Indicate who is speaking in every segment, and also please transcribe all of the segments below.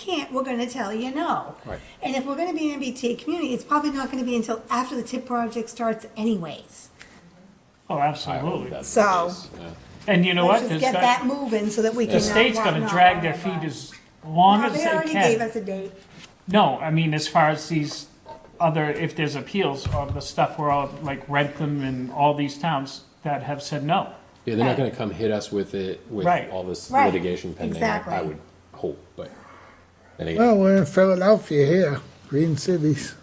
Speaker 1: can't, we're gonna tell you no.
Speaker 2: Right.
Speaker 1: And if we're gonna be an MBTA community, it's probably not gonna be until after the TIP project starts anyways.
Speaker 3: Oh, absolutely.
Speaker 1: So-
Speaker 3: And you know
Speaker 1: Let's
Speaker 3: what?
Speaker 1: just
Speaker 3: It's
Speaker 1: get
Speaker 3: got-
Speaker 1: that moving so that we can. uh,
Speaker 3: The state's gonna drag their feet as long
Speaker 1: No,
Speaker 3: as they
Speaker 1: they
Speaker 3: can.
Speaker 1: already gave us a date.
Speaker 3: No, I mean, as far as these other, if there's appeals of the stuff where all, like Rentham and all these towns that have said no.
Speaker 2: Yeah, they're not gonna come hit us with it, with
Speaker 3: Right.
Speaker 2: all this
Speaker 1: Right.
Speaker 2: litigation pending, I- I
Speaker 1: Exactly.
Speaker 2: would hope, but. then again-
Speaker 4: Well, we're in Philadelphia here, green cities.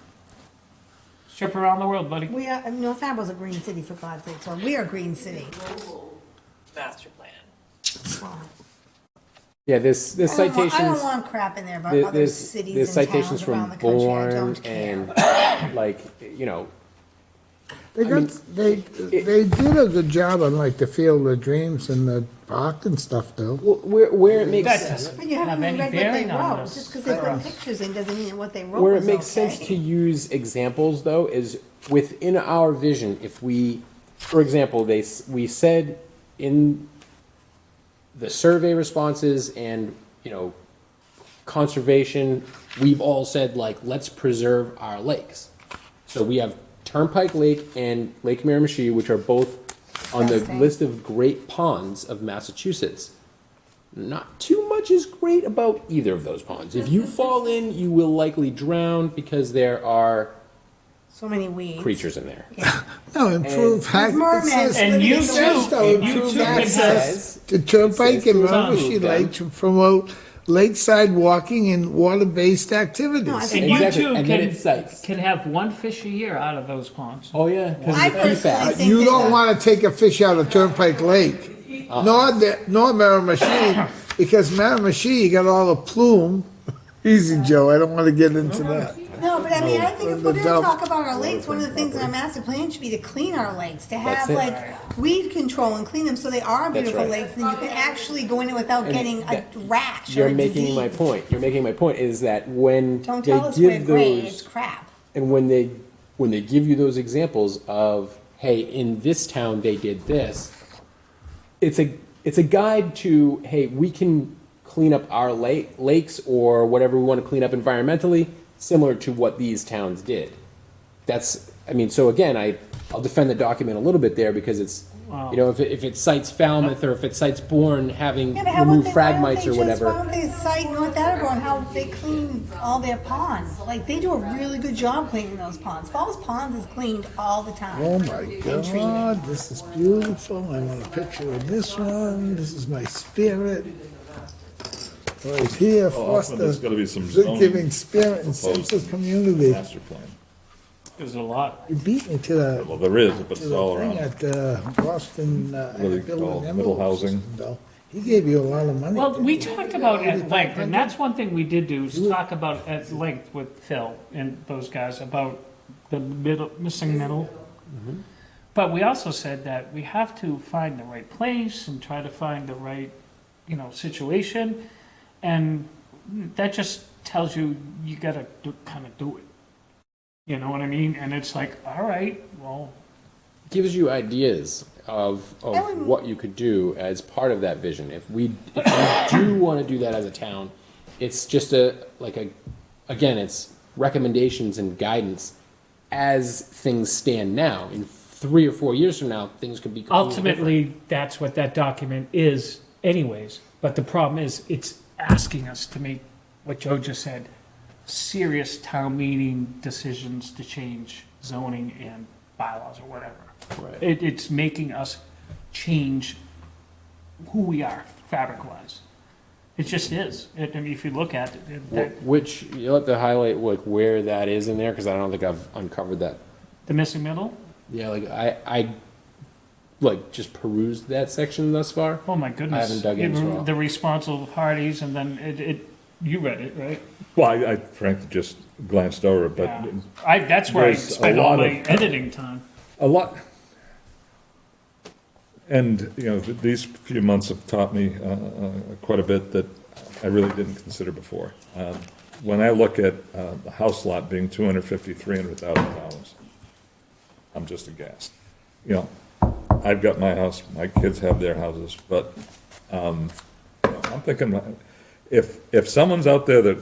Speaker 3: Strip around the world, buddy.
Speaker 1: We are, North Ambo's a green city for God's sake, so we are a green city.
Speaker 5: global master plan.
Speaker 2: Yeah, there's, there's
Speaker 1: I don't want-
Speaker 2: citations.
Speaker 1: I don't want crap in there about
Speaker 2: There-
Speaker 1: other
Speaker 2: There's, there's
Speaker 1: cities and
Speaker 2: citations
Speaker 1: towns around
Speaker 2: from
Speaker 1: the country, I
Speaker 2: Bourne
Speaker 1: don't care.
Speaker 2: and, like, you know,
Speaker 4: They got, they, they did a good job on like the Field of Dreams and the park and stuff though.
Speaker 2: wh- where, where it makes
Speaker 3: That
Speaker 2: sense.
Speaker 1: But
Speaker 3: doesn't
Speaker 1: you haven't
Speaker 3: have
Speaker 1: even
Speaker 3: any
Speaker 1: read what they
Speaker 3: bearing on
Speaker 1: wrote,
Speaker 3: this.
Speaker 1: just because they put pictures in doesn't mean what they wrote
Speaker 2: Where it
Speaker 1: was
Speaker 2: makes
Speaker 1: okay.
Speaker 2: sense to use examples, though, is within our vision, if we, for example, they, s- we said in the survey responses and, you know, conservation, we've all said like, let's preserve our lakes. So we have Turnpike Lake and Lake Miramichi, which are both on the
Speaker 1: Interesting.
Speaker 2: list of great ponds of Massachusetts. Not too much is great about either of those ponds. If you fall in, you will likely drown because there are
Speaker 1: So many weeds.
Speaker 2: creatures in there.
Speaker 4: No, improve
Speaker 1: mermans.
Speaker 4: access.
Speaker 3: And you
Speaker 1: It's
Speaker 3: too,
Speaker 1: just
Speaker 3: and you
Speaker 4: improved
Speaker 3: too can have,
Speaker 4: access to Turnpike and
Speaker 2: It's on
Speaker 4: Miramichi
Speaker 2: move then.
Speaker 4: Lake to promote lakeside walking and water-based activities.
Speaker 1: think-
Speaker 3: and you
Speaker 2: Exactly,
Speaker 3: too
Speaker 2: and then
Speaker 3: can,
Speaker 2: it cites.
Speaker 3: can have one fish a year out of those ponds.
Speaker 2: Oh, yeah, because
Speaker 1: I
Speaker 2: of the PFAS.
Speaker 1: personally think
Speaker 4: You
Speaker 1: that-
Speaker 4: don't wanna take a fish out of Turnpike Lake,
Speaker 3: Uh-uh.
Speaker 4: nor, the- nor Miramichi, because Miramichi, you got all the plume. Easy, Joe, I don't wanna get into that.
Speaker 1: No, but I mean, I think if we're
Speaker 4: The
Speaker 1: gonna
Speaker 4: dump.
Speaker 1: talk about our lakes, one of the things in our master plan should be to clean our lakes, to have
Speaker 2: it.
Speaker 1: like weed control and clean them so they are beautiful
Speaker 2: right.
Speaker 1: lakes, then you can actually go in it without getting a
Speaker 2: that-
Speaker 1: rash or
Speaker 2: You're
Speaker 1: a
Speaker 2: making my
Speaker 1: disease.
Speaker 2: point. You're making my point is that when
Speaker 1: Don't
Speaker 2: they
Speaker 1: tell us we're
Speaker 2: give
Speaker 1: great, it's
Speaker 2: those
Speaker 1: crap.
Speaker 2: and when they when they give you those examples of hey, in this town they did this, it's a it's a guide to hey, we can clean up our lake, lakes or whatever we want to clean up environmentally, similar to what these towns did. That's I mean, so again, I I'll defend the document a little bit there because it's you know if it, if it cites Falmouth or if it cites Bourne having
Speaker 1: Yeah, but how about
Speaker 2: removed
Speaker 1: they, why don't
Speaker 2: fragmites
Speaker 1: they
Speaker 2: or
Speaker 1: just,
Speaker 2: whatever.
Speaker 1: why don't they cite North Attleboro and how they clean all their ponds? Like, they do a really good job cleaning those ponds. Falls Ponds is cleaned all the time.
Speaker 4: Oh my God, this is beautiful. I want a picture of this one. This is my spirit. Right here,
Speaker 6: Also,
Speaker 4: foster
Speaker 6: Oh, there's gotta be some
Speaker 4: giving
Speaker 6: zoning
Speaker 4: spirit and sense of
Speaker 6: proposed
Speaker 4: community.
Speaker 6: master plan.
Speaker 3: There's a lot.
Speaker 4: You beat me to the,
Speaker 6: Well, there is, but
Speaker 4: to
Speaker 6: it's
Speaker 4: the
Speaker 6: all
Speaker 4: thing at
Speaker 6: around.
Speaker 4: uh, Boston. uh,
Speaker 6: What do they
Speaker 4: Bill and
Speaker 6: call it?
Speaker 4: Emily
Speaker 6: Middle housing?
Speaker 4: system, though. He gave you a lot of money.
Speaker 3: Well,
Speaker 4: didn't
Speaker 3: we
Speaker 4: he?
Speaker 3: talked about at length, and that's one thing we did do, is talk about at length with Phil and those guys about the middle, missing middle. But we also said that we have to find the right place and try to find the right, you know, situation. And that just tells you, you gotta do, kind of do it. You know what I mean? And it's like, all right, well,
Speaker 2: gives you ideas of,
Speaker 1: I
Speaker 2: of
Speaker 1: wouldn't-
Speaker 2: what you could do as part of that vision. If we, if we do want to do that as a town, it's just a, like a, again, it's recommendations and guidance as things stand now. In three or four years from now, things could be. completely different.
Speaker 3: ultimately, that's what that document is anyways. But the problem is, it's asking us to make, what Joe just said, serious town meeting decisions to change zoning and bylaws or whatever.
Speaker 2: Right.
Speaker 3: It, it's making us change who we are fabric-wise. It just is. It- I mean, if you look at it, it, that-
Speaker 2: Wh- Which, you'll have to highlight like where that is in there, because I don't think I've uncovered that.
Speaker 3: the missing middle,
Speaker 2: Yeah, like I, I, like just perused that section thus far.
Speaker 3: oh my goodness.
Speaker 2: haven't dug in
Speaker 3: It-
Speaker 2: as well.
Speaker 3: The responsible parties, and then it, it, you read it, right?
Speaker 6: Well, I, I frankly just glanced over it, but
Speaker 3: Yeah. I, that's where I
Speaker 6: There's a
Speaker 3: spend all
Speaker 6: lot
Speaker 3: my
Speaker 6: of-
Speaker 3: editing time.
Speaker 6: a lot. And, you know, th- these few months have taught me uh, uh, quite a bit that I really didn't consider before. Um, When I look at uh, the house lot being two hundred fifty, three hundred thousand dollars, I'm just aghast. You know, I've got my house, my kids have their houses, but um, you know, I'm thinking, if, if someone's out there that